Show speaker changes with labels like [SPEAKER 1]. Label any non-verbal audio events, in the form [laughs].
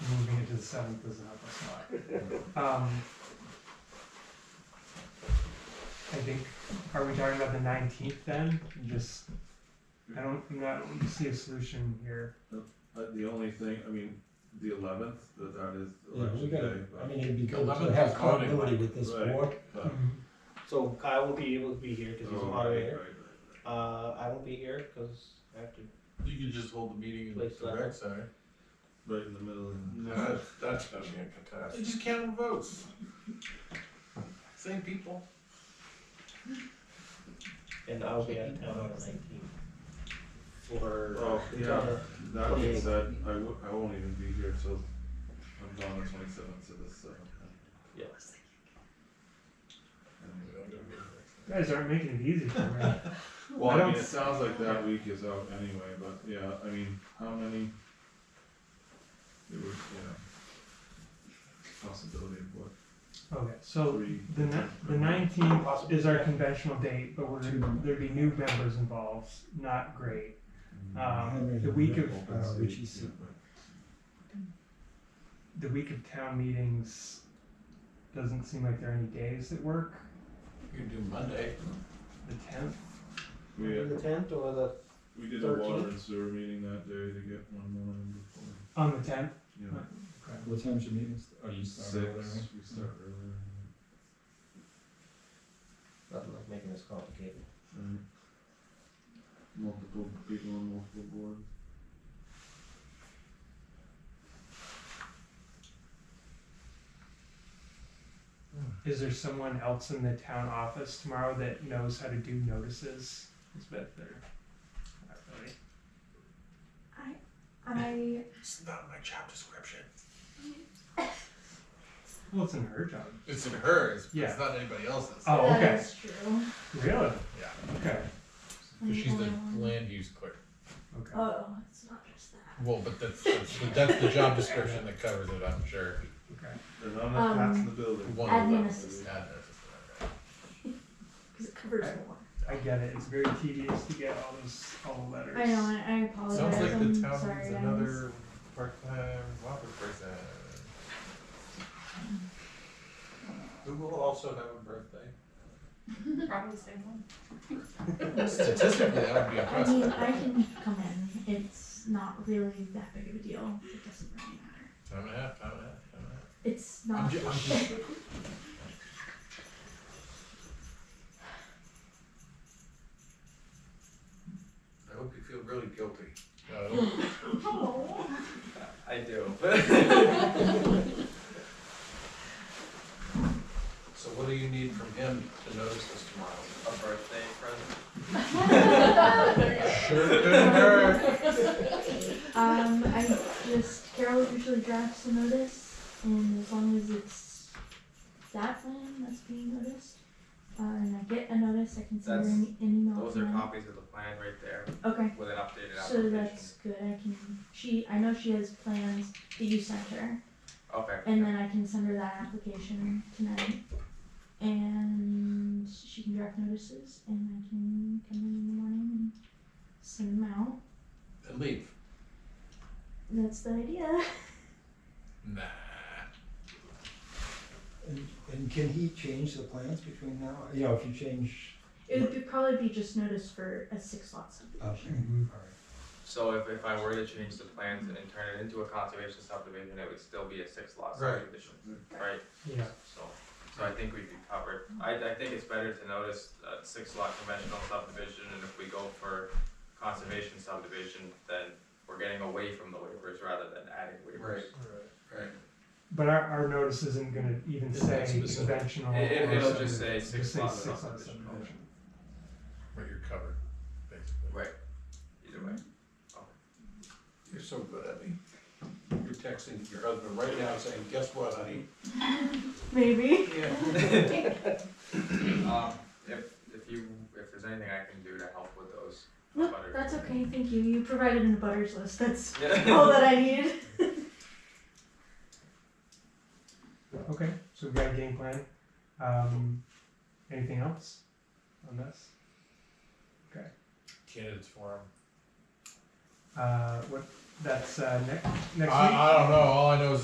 [SPEAKER 1] seventh doesn't help us a lot. Um, I think, are we talking about the nineteenth then? Just, I don't, I'm not, I don't see a solution here.
[SPEAKER 2] Uh, the only thing, I mean, the eleventh, that that is
[SPEAKER 3] Yeah, we
[SPEAKER 2] election
[SPEAKER 3] gotta,
[SPEAKER 2] day.
[SPEAKER 3] I
[SPEAKER 2] but-
[SPEAKER 3] mean, it'd be good to
[SPEAKER 4] Eleventh
[SPEAKER 3] have
[SPEAKER 4] is voting.
[SPEAKER 3] continuity with this
[SPEAKER 2] Right.
[SPEAKER 3] board.
[SPEAKER 2] but-
[SPEAKER 5] So Kyle will be able to be here because he's a
[SPEAKER 2] Oh, right,
[SPEAKER 5] moderator.
[SPEAKER 2] right, right,
[SPEAKER 5] Uh, I won't be here because I have to.
[SPEAKER 4] You could just hold the meeting in
[SPEAKER 5] Place
[SPEAKER 4] the
[SPEAKER 5] that.
[SPEAKER 4] rec center.
[SPEAKER 2] right. Right in the middle. and-
[SPEAKER 4] That's, that's gonna be a catastrophe. Just count votes. Same people.
[SPEAKER 5] And I'll be out of town on the nineteenth. For.
[SPEAKER 2] Oh,
[SPEAKER 5] it's on
[SPEAKER 2] yeah,
[SPEAKER 5] the-
[SPEAKER 2] that being said, I w- I won't even be here till I'm gone the twenty-seventh to the seventh.
[SPEAKER 5] Yeah.
[SPEAKER 1] You guys aren't making it easy for me.
[SPEAKER 2] Well,
[SPEAKER 1] I
[SPEAKER 2] I mean,
[SPEAKER 1] don't-
[SPEAKER 2] it sounds like that week is out anyway, but yeah, I mean, how many? It would, yeah. Possibility of what,
[SPEAKER 1] Okay, so
[SPEAKER 2] three?
[SPEAKER 1] the ni- the nineteenth is our conventional date, but we're, there'd be new members involved, not great. Um, the week of,
[SPEAKER 3] Uh, Richie
[SPEAKER 2] Yeah,
[SPEAKER 3] said-
[SPEAKER 2] but-
[SPEAKER 1] the week of town meetings doesn't seem like there are any days that work.
[SPEAKER 4] You could do Monday.
[SPEAKER 1] The tenth,
[SPEAKER 2] We,
[SPEAKER 5] The
[SPEAKER 2] had-
[SPEAKER 5] tenth or the,
[SPEAKER 2] we did a water
[SPEAKER 5] 13th?
[SPEAKER 2] and sewer meeting that day to get one more in before,
[SPEAKER 1] on the tenth,
[SPEAKER 2] you know.
[SPEAKER 3] What time's your meeting? Oh, you start early,
[SPEAKER 2] Six,
[SPEAKER 3] right?
[SPEAKER 2] we start earlier.
[SPEAKER 5] nothing like making this complicated.
[SPEAKER 2] Right. Multiple people on multiple boards.
[SPEAKER 1] is there someone else in the town office tomorrow that knows how to do notices? Is Beth there? Not really.
[SPEAKER 6] I
[SPEAKER 4] It's not my job description.
[SPEAKER 1] Well, it's in her job.
[SPEAKER 4] It's in hers, but
[SPEAKER 1] Yeah.
[SPEAKER 4] it's not anybody else's.
[SPEAKER 1] Oh,
[SPEAKER 6] that
[SPEAKER 1] okay,
[SPEAKER 6] is true.
[SPEAKER 1] really?
[SPEAKER 4] Yeah.
[SPEAKER 1] Okay,
[SPEAKER 6] I'm
[SPEAKER 4] Cause she's
[SPEAKER 6] only
[SPEAKER 4] the
[SPEAKER 6] one.
[SPEAKER 4] land use clerk.
[SPEAKER 1] okay.
[SPEAKER 6] Oh, it's not just that.
[SPEAKER 4] Well, but that's, that's, the- that's the job description that covers it, I'm sure.
[SPEAKER 1] Okay.
[SPEAKER 2] There's not enough hats in
[SPEAKER 6] Um,
[SPEAKER 2] the building.
[SPEAKER 4] One of them.
[SPEAKER 6] Admin assistant.
[SPEAKER 4] Admin assistant, right.
[SPEAKER 6] Because it covers
[SPEAKER 1] Okay.
[SPEAKER 6] more.
[SPEAKER 1] I get it, it's very tedious to get all those, all the letters.
[SPEAKER 6] I know, I, I apologize.
[SPEAKER 4] Sounds like
[SPEAKER 6] I'm
[SPEAKER 4] the town
[SPEAKER 6] Oh, sorry,
[SPEAKER 4] needs
[SPEAKER 6] guys.
[SPEAKER 4] another part-time Whopper person. Who will also have a birthday?
[SPEAKER 7] Probably the same one.
[SPEAKER 4] Statistically, that would be
[SPEAKER 6] I mean,
[SPEAKER 4] impressive.
[SPEAKER 6] I can come in. It's not really that big of a deal. It doesn't really matter.
[SPEAKER 4] Time and a half, time and a half, time and a half.
[SPEAKER 6] It's
[SPEAKER 4] I'm
[SPEAKER 6] not.
[SPEAKER 4] ju- I'm just- I hope you feel really guilty. No,
[SPEAKER 6] [laughs] Oh.
[SPEAKER 5] I do.
[SPEAKER 4] so what do you need from him to notice this tomorrow?
[SPEAKER 5] A birthday present.
[SPEAKER 4] Sure couldn't hurt.
[SPEAKER 6] Um, I just Carol usually drafts a notice, and as long as it's that plan that's being noticed, uh, and I get a notice, I can send her
[SPEAKER 5] That's-
[SPEAKER 6] an, an email.
[SPEAKER 5] Those
[SPEAKER 6] from
[SPEAKER 5] are
[SPEAKER 6] her.
[SPEAKER 5] copies of the plan right there
[SPEAKER 6] Okay,
[SPEAKER 5] with an updated
[SPEAKER 6] Mm-hmm. so
[SPEAKER 5] application.
[SPEAKER 6] that's good. I can. She, I know she has plans that you sent her.
[SPEAKER 5] Okay.
[SPEAKER 6] And then I can send her that application tonight. And she can draft notices and I can come in in the morning and send them out.
[SPEAKER 4] And leave.
[SPEAKER 6] That's the idea.
[SPEAKER 4] Nah.
[SPEAKER 3] And, and can he change the plans between now, you know, if you change,
[SPEAKER 6] It would be, probably be just notice for a six lot
[SPEAKER 3] okay,
[SPEAKER 6] subdivision.
[SPEAKER 1] Mhm.
[SPEAKER 3] alright.
[SPEAKER 5] So if, if I were to change the plans and turn it into a conservation subdivision, it would still be a six lot
[SPEAKER 4] Right.
[SPEAKER 5] subdivision, right?
[SPEAKER 1] Yeah,
[SPEAKER 5] So, so I think we'd be covered. I, I think it's better to notice a six lot conventional subdivision, and if we go for conservation subdivision, then we're getting away from the waivers rather than adding waivers.
[SPEAKER 4] Right.
[SPEAKER 1] but our, our notice isn't gonna even
[SPEAKER 4] It's not
[SPEAKER 1] say
[SPEAKER 4] specific.
[SPEAKER 1] conventional.
[SPEAKER 5] It- it-
[SPEAKER 1] or
[SPEAKER 5] it'll
[SPEAKER 1] something.
[SPEAKER 5] just say six
[SPEAKER 1] Just say
[SPEAKER 5] lot
[SPEAKER 1] six lot
[SPEAKER 5] subdivision.
[SPEAKER 1] subdivision.
[SPEAKER 4] But you're covered, basically.
[SPEAKER 5] Right. Either way.
[SPEAKER 4] You're so good at me. You're texting your husband right now saying, guess what, honey?
[SPEAKER 6] Maybe.
[SPEAKER 4] Yeah.
[SPEAKER 5] Um, if, if you, if there's anything I can do to help with those.
[SPEAKER 6] Nope,
[SPEAKER 5] butter-
[SPEAKER 6] that's okay. Thank you. You provided an abutters list. That's
[SPEAKER 5] [laughs] Yeah.
[SPEAKER 6] all that I need.
[SPEAKER 1] Okay, so we've got a game plan. Um, anything else on this?
[SPEAKER 4] Candidates forum.
[SPEAKER 1] Uh, what, that's, uh, next, next week?
[SPEAKER 4] I, I don't know, all I know is